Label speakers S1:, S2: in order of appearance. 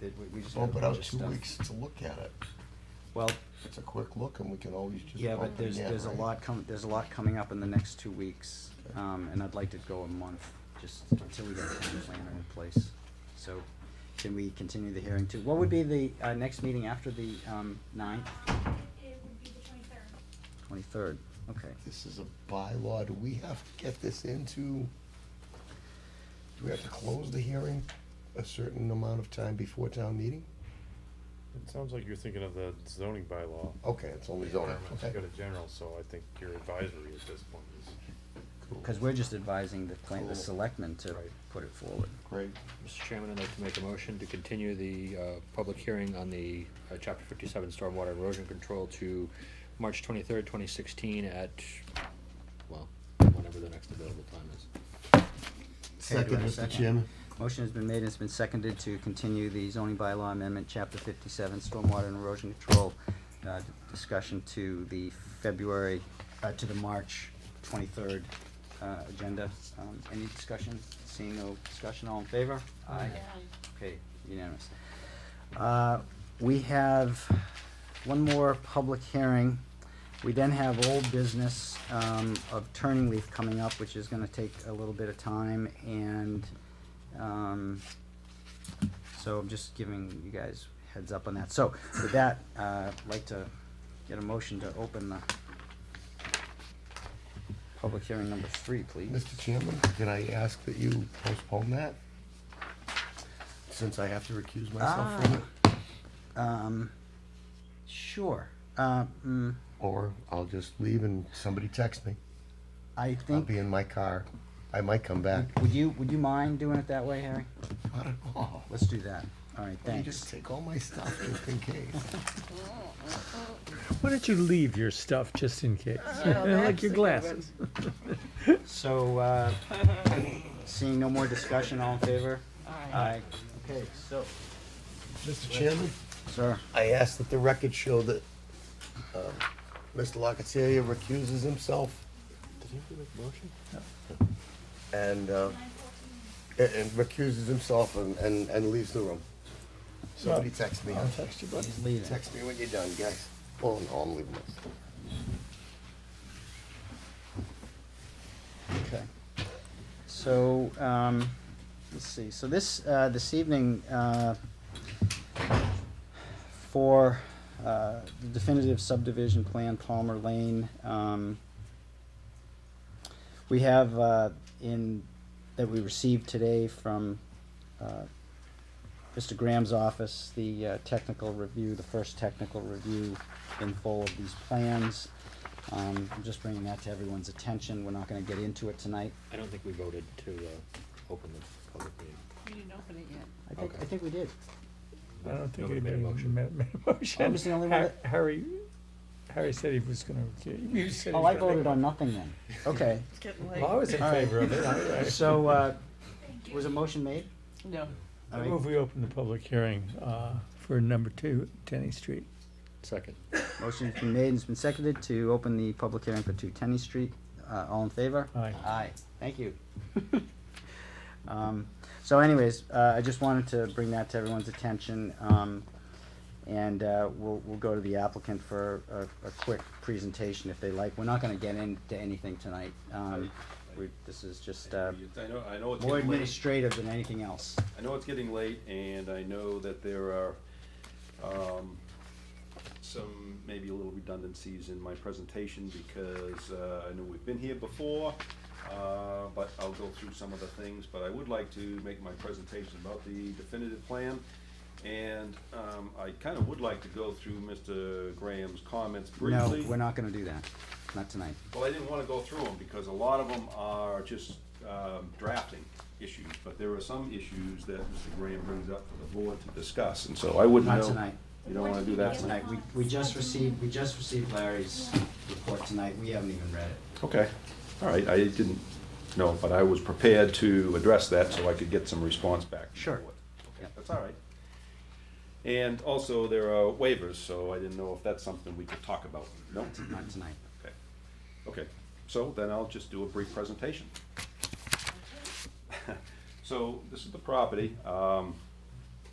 S1: that we, we just
S2: Oh,
S1: had a
S2: but
S1: bunch
S2: out
S1: of
S2: two
S1: stuff.
S2: weeks to look at it.
S1: Well,
S2: It's a quick look and we can always just
S1: yeah, but
S2: bump it
S1: there's,
S2: again,
S1: there's a
S2: right?
S1: lot coming, there's a lot coming up in the next two weeks.
S2: Okay.
S1: Um, and I'd like to go a month, just until we get a town planner in place. So can we continue the hearing to, what would be the, uh, next meeting after the, um, ninth,
S3: It would be the twenty-third.
S1: twenty-third? Okay.
S2: This is a bylaw, do we have to get this into? Do we have to close the hearing a certain amount of time before town meeting?
S4: It sounds like you're thinking of the zoning bylaw.
S2: Okay, it's Oh, only zoning,
S4: Requirements
S2: okay.
S4: go to general, so I think your advisory at this point is,
S2: Cool.
S1: Cause we're just advising the plan, the
S4: Cool.
S1: selectmen to
S4: Right.
S1: put it forward.
S2: Great,
S5: Mr. Chairman, I'd like to make a motion to continue the uh, public hearing on the uh, Chapter 57 Stormwater Erosion Control to March 23rd, 2016 at, well, whenever the next available time is.
S1: do I
S2: second,
S1: have a
S2: Mr.
S1: second?
S2: Chairman.
S1: Motion has been made and it's been seconded to continue the zoning bylaw amendment, chapter fifty-seven, stormwater and erosion control, uh, d- discussion to the February, uh, to the March twenty-third, uh, agenda. Um, any discussion? Seeing no discussion, all in favor? Aye. Okay, unanimous. Uh, we have one more public hearing. We then have old business, um, of Turning Leaf coming up, which is gonna take a little bit of time and, um, so I'm just giving you guys heads up on that. So with that, uh, I'd like to get a motion to open the public hearing number three, please.
S2: Mr. Chairman, can I ask that you postpone that? Since I have to recuse myself
S1: Ah.
S2: from it,
S1: Um, sure. Uh, mm,
S2: or I'll just leave and somebody text me.
S1: I
S2: I'll
S1: think,
S2: be in my car. I might come back.
S1: would you, would you mind doing it that way, Harry?
S2: Not at all.
S1: Let's do that. All right,
S2: You just
S1: thanks.
S2: take all my stuff just in case.
S6: Why don't you leave your stuff just in case?
S1: Uh,
S6: like your glasses.
S1: So, uh, seeing no more discussion, all in favor? Aye. Okay, so,
S2: Mr. Chairman?
S1: sir,
S2: I ask that the record show that um, Mr. Locatilia recuses himself
S4: did he make a motion?
S2: and, uh, a- and recuses himself and, and and leaves the room. Somebody text me. I'll text you, buddy.
S1: he's leaving.
S2: Text me when you're done, guys. Well, no, I'm leaving this.
S1: Okay. So, um, let's see, so this, uh, this evening, uh, for, uh, the definitive subdivision plan Palmer Lane, um, we have, uh, in, that we received today from, uh, Mr. Graham's office, the, uh, technical review, the first technical review in full of these plans. Um, I'm just bringing that to everyone's attention. We're not gonna get into it tonight.
S5: I don't think we voted to uh, open the public meeting.
S7: We didn't open it yet.
S1: I think, I
S5: Okay.
S1: think we did.
S6: I don't think
S5: Nobody made a
S6: anybody
S5: motion.
S6: ma- made a motion.
S1: I was the only one
S6: Har-
S1: that-
S6: Harry, Harry said he was gonna, recuse. You said he
S1: Oh, I
S6: was gonna-
S1: voted on nothing then. Okay,
S7: It's getting
S6: Well, I
S7: late.
S6: was in
S1: All right.
S6: favor of it. I- I-
S1: so, uh, was a motion made?
S7: No.
S1: All
S6: I
S1: right.
S6: move we open the public hearing, uh, for number two, Tenny Street.
S5: Second.
S1: Motion's been made and it's been seconded to open the public hearing for two Tenny Street. Uh, all in favor?
S6: Aye.
S1: Aye, thank you. Um, so anyways, uh, I just wanted to bring that to everyone's attention, um, and, uh, we'll, we'll go to the applicant for a, a quick presentation if they like. We're not gonna get into anything tonight, um, we, this is just, uh,
S8: I know, I know it's
S1: more
S8: getting late,
S1: administrative than anything else.
S8: I know it's getting late, and I know that there are, um, some, maybe a little redundancies in my presentation, because, uh, I know we've been here before, uh, but I'll go through some of the things, but I would like to make my presentation about the definitive plan, and, um, I kinda would like to go through Mr. Graham's comments
S1: No,
S8: briefly.
S1: we're not gonna do that, not tonight.
S8: Well, I didn't want to go through them because a lot of them are just um, drafting issues, but there are some issues that Mr. Graham brings up for the board to discuss, and so I wouldn't know.
S1: Not tonight.
S8: You don't want to do that tonight?
S1: Tonight, we, we just received, we just received Larry's report tonight, we haven't even read it.
S8: Okay, all right, I didn't know, but I was prepared to address that so I could get some response back.
S1: Sure.
S8: Okay,
S1: Yep.
S8: That's all right. And also, there are waivers, so I didn't know if that's something we could talk about. No?
S1: Not tonight.
S8: Okay, okay, so then I'll just do a brief presentation. So this is the property, um,